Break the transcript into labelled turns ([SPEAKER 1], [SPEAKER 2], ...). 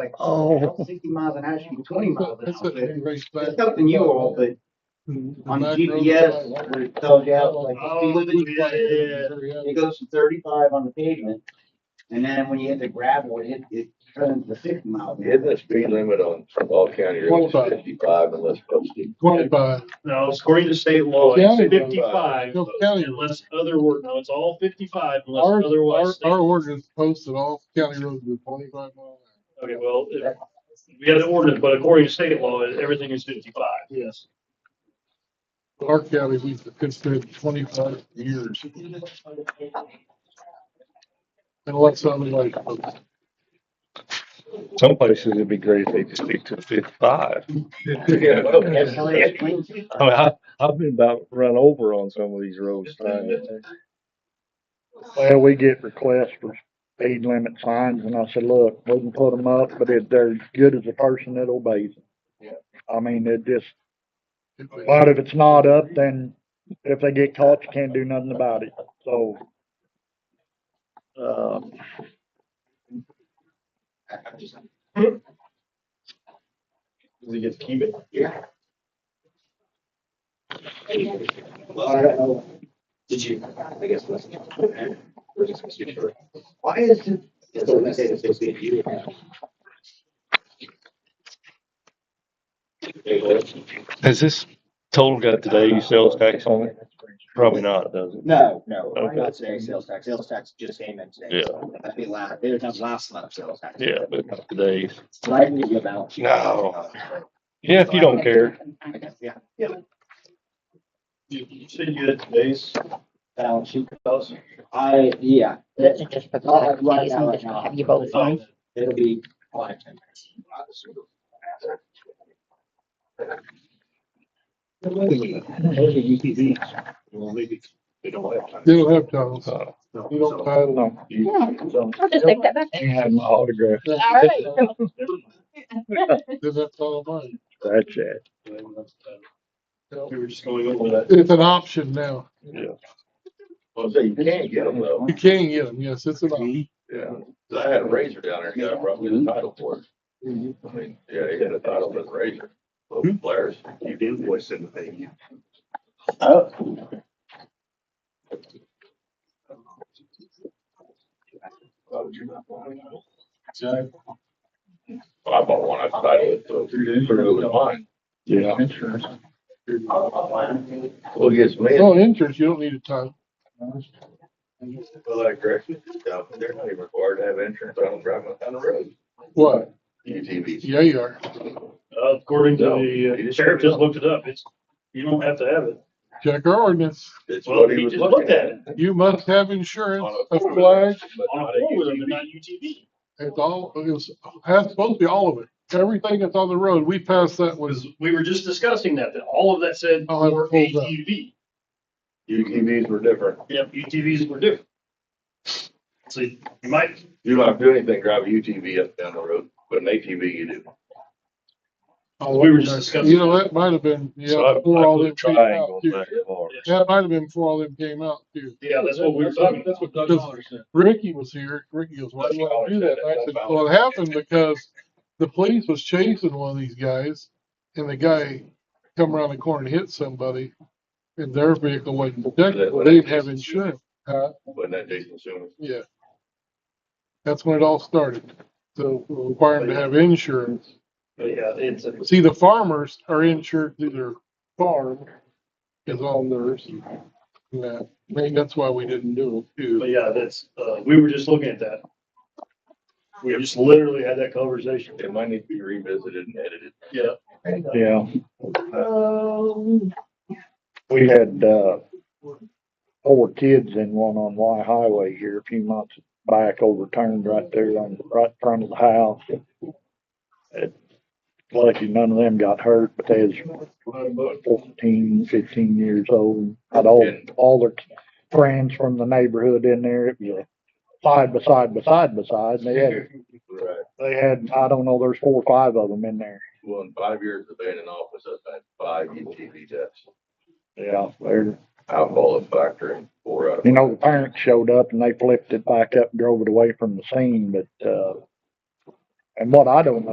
[SPEAKER 1] like,
[SPEAKER 2] Oh.
[SPEAKER 1] sixty miles an hour, should be twenty miles an
[SPEAKER 3] That's
[SPEAKER 1] hour.
[SPEAKER 3] what
[SPEAKER 1] But
[SPEAKER 3] everybody's
[SPEAKER 1] It's
[SPEAKER 3] back-
[SPEAKER 1] up to you all, but on
[SPEAKER 3] Back road
[SPEAKER 1] GPS,
[SPEAKER 3] side.
[SPEAKER 1] where it tells you out, like,
[SPEAKER 3] Oh,
[SPEAKER 1] the speed limit's like
[SPEAKER 3] yeah,
[SPEAKER 1] this.
[SPEAKER 3] yeah.
[SPEAKER 1] it goes to thirty-five on the pavement. And then when you hit the gravel, it, hit- it turns to sixty miles. an hour.
[SPEAKER 4] Isn't the speed limit on all county roads
[SPEAKER 3] Twenty-five.
[SPEAKER 4] fifty-five unless posted?
[SPEAKER 3] Twenty-five.
[SPEAKER 5] No, according to state law, it's
[SPEAKER 3] County road.
[SPEAKER 5] fifty-five
[SPEAKER 3] No, county road.
[SPEAKER 5] unless other word, no, it's all fifty-five
[SPEAKER 3] Our,
[SPEAKER 5] unless
[SPEAKER 3] our,
[SPEAKER 5] otherwise.
[SPEAKER 3] our
[SPEAKER 5] stated.
[SPEAKER 3] ordinance posted all county roads with twenty-five mile
[SPEAKER 5] Okay, well, if- we got an ordinance, but according to state law, everything is fifty-five. Yes.
[SPEAKER 3] an hour. Our county, we've considered twenty-five years. Unless somebody like,
[SPEAKER 6] Some places it'd be great if they just stick to fifty-five.
[SPEAKER 1] That's how
[SPEAKER 6] I
[SPEAKER 1] it explains.
[SPEAKER 4] Oh,
[SPEAKER 6] mean, I, I've been about run over on some of these roads trying to.
[SPEAKER 2] Well, we get requests for speed limit signs and I said, look, we can put them up, but if they're as good as the person that obeys them.
[SPEAKER 4] Yeah.
[SPEAKER 2] I mean, it just, but if it's not up, then if they get caught, you can't do nothing about it, so. Um,
[SPEAKER 5] We get to keep it.
[SPEAKER 1] Yeah. Well, I don't know.
[SPEAKER 4] Did you, I guess, let's. we're just gonna skip through it.
[SPEAKER 1] Why is it?
[SPEAKER 4] It's only gonna say it's supposed to be you. Okay, well,
[SPEAKER 6] Has this total got today's sales tax on it? Probably not, does it?
[SPEAKER 1] No, no, I'm
[SPEAKER 6] Okay.
[SPEAKER 1] not saying sales tax, sales tax just came in today.
[SPEAKER 6] Yeah.
[SPEAKER 1] so That'd be last, they would have last month's sales tax.
[SPEAKER 6] Yeah, Oh. but not today's.
[SPEAKER 1] So I can give you a balance. sheet.
[SPEAKER 6] No. Yeah, if you don't care.
[SPEAKER 1] I guess, Yeah,
[SPEAKER 5] You you said you had today's.
[SPEAKER 1] balance sheet goes, I, yeah, that-
[SPEAKER 7] Just put
[SPEAKER 1] I'll have
[SPEAKER 7] that,
[SPEAKER 1] it right
[SPEAKER 7] please,
[SPEAKER 1] now,
[SPEAKER 7] and
[SPEAKER 1] right
[SPEAKER 7] just
[SPEAKER 1] now.
[SPEAKER 7] have you both sign.
[SPEAKER 1] it'll be. on it. Those are UTVs.
[SPEAKER 4] well, maybe They don't have time.
[SPEAKER 3] they don't have titles.
[SPEAKER 6] Uh,
[SPEAKER 3] We don't title them.
[SPEAKER 7] I'll just take that back.
[SPEAKER 2] you have my autograph,
[SPEAKER 7] All right.
[SPEAKER 3] Cause that's all mine.
[SPEAKER 2] that's it.
[SPEAKER 5] We were just going over that.
[SPEAKER 3] It's an option now.
[SPEAKER 4] Well, so you can't get them though.
[SPEAKER 3] You can get them, yes, it's an option.
[SPEAKER 4] Yeah, 'Cause I had a razor down there, yeah, I brought
[SPEAKER 3] Mm-hmm.
[SPEAKER 4] me the title for it. I mean, yeah, he had a title for the razor,
[SPEAKER 3] Hmm?
[SPEAKER 4] little flares. You invoiced him, thank you. Oh. I bought one, I titled it, so it was mine.
[SPEAKER 6] Yeah.
[SPEAKER 4] Well, it gets me,
[SPEAKER 3] No interest, you don't need a title.
[SPEAKER 4] well, I corrected, yeah, they're not even required to have insurance, I don't drive them down the road. E
[SPEAKER 3] What?
[SPEAKER 4] UTVs.
[SPEAKER 3] Yeah, you are.
[SPEAKER 5] Uh, According to
[SPEAKER 4] No,
[SPEAKER 5] the,
[SPEAKER 4] he
[SPEAKER 5] uh,
[SPEAKER 4] just-
[SPEAKER 5] sheriff just looked it up. It's, you don't have to have it.
[SPEAKER 3] Check our ordinance.
[SPEAKER 4] It's
[SPEAKER 5] Well,
[SPEAKER 4] what he
[SPEAKER 5] he
[SPEAKER 4] was
[SPEAKER 5] just looked
[SPEAKER 4] looking
[SPEAKER 5] at
[SPEAKER 4] at.
[SPEAKER 5] it
[SPEAKER 3] You must have insurance, a flag.
[SPEAKER 4] But
[SPEAKER 5] on a
[SPEAKER 4] not
[SPEAKER 5] four wheeler,
[SPEAKER 4] UTV.
[SPEAKER 5] but not UTV.
[SPEAKER 3] It's all, it's, has supposed to be all of it. Everything that's on the road, we passed that was,
[SPEAKER 5] Was, we were just discussing that, that all of that said
[SPEAKER 3] I'll have it
[SPEAKER 5] were
[SPEAKER 3] Oh, pulled up.
[SPEAKER 5] ATV.
[SPEAKER 4] UTVs were different.
[SPEAKER 5] Yep, UTVs were different. So you might,
[SPEAKER 4] You don't have to do anything, drive a UTV up down the road, but an ATV you do.
[SPEAKER 5] we were just discussing.
[SPEAKER 3] you know, that might have been,
[SPEAKER 6] So I-
[SPEAKER 3] yeah, before
[SPEAKER 6] I
[SPEAKER 3] all
[SPEAKER 6] put
[SPEAKER 3] them came out
[SPEAKER 6] triangle
[SPEAKER 3] too.
[SPEAKER 6] back bar.
[SPEAKER 3] That might have been before all them came out too.
[SPEAKER 5] Yeah, that's what we were talking about.
[SPEAKER 3] Doug Dollar Ricky was here. Ricky goes, why do you want to do that? And I said, well, it happened because the police was chasing one of these guys and the guy come around the corner and hit somebody and their vehicle wasn't protected. They didn't have insurance. Huh?
[SPEAKER 4] Wasn't that Jason Schumer?
[SPEAKER 3] Yeah. That's when it all started. So requiring to have insurance.
[SPEAKER 5] But yeah, it's, a-
[SPEAKER 3] See, the farmers are insured through their farm is all theirs. Yeah, I think that's why we didn't do it too.
[SPEAKER 5] but yeah, that's, uh, we were just looking at that. We just literally had that conversation.
[SPEAKER 4] It might need to be revisited and edited.
[SPEAKER 5] Yeah.
[SPEAKER 2] Yeah. Um, We had, uh, four kids in one on Y Highway here a few months back overturned right there on, right in front of the house. It- Lucky none of them got hurt, but they was fourteen, fifteen years old. Had all, all their friends from the neighborhood in there. It was a side by side by side by side. They had,
[SPEAKER 4] Right.
[SPEAKER 2] they had, I don't know, there's four or five of them in there.
[SPEAKER 4] Well, in five years of being in office, I've had five E UTV deaths.
[SPEAKER 2] Yeah, they're,
[SPEAKER 4] Alcohol and factor and four out of.
[SPEAKER 2] You know, the parents showed up and they flipped it back up and drove it away from the scene, but, uh, And what I don't